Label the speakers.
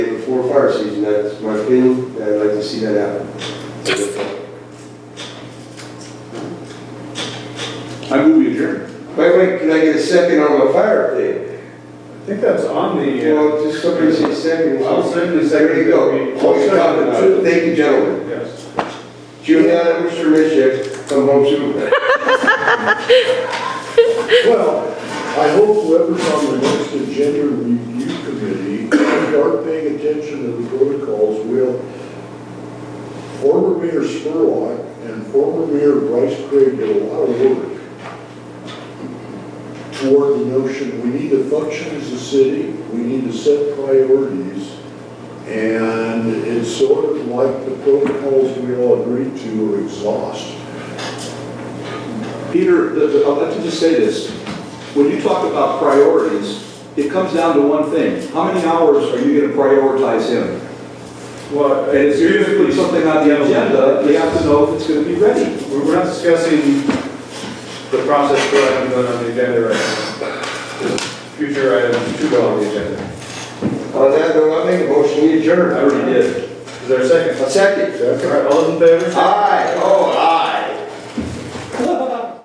Speaker 1: before fire season, that's my opinion, and I'd like to see that happen.
Speaker 2: I move you adjourn.
Speaker 1: Wait, wait, can I get a second on my fire thing?
Speaker 3: I think that's on the, uh,
Speaker 1: Well, just somebody say second.
Speaker 3: I'll second the
Speaker 1: There you go.
Speaker 3: second.
Speaker 1: What you're talking about. Thank you, gentlemen.
Speaker 3: yes.
Speaker 1: Juliana, Mr. Mishek, come home soon.
Speaker 4: Well, I hope whoever's on the next agenda review committee, if you are paying attention to the protocols, will former Mayor Spurlock and former Mayor Bryce Craig did a lot of work toward the notion, we need to function as a city, we need to set priorities, and it's sort of like the protocols we all agreed to are exhaust.
Speaker 2: Peter, the- the- I'll let you just say this. When you talk about priorities, it comes down to one thing. How many hours are you going to prioritize him?
Speaker 3: Well, uh,
Speaker 2: And if you're going to put something on the agenda, you have to know if it's going to be ready.
Speaker 3: We're we're not discussing the process for items on the agenda right now. Future items to go on the agenda.
Speaker 1: On that note, I make a motion, we
Speaker 3: I
Speaker 1: adjourn.
Speaker 3: already did. Is there a second?
Speaker 1: A second.
Speaker 3: All right, all those in favor?
Speaker 1: Aye, oh, aye.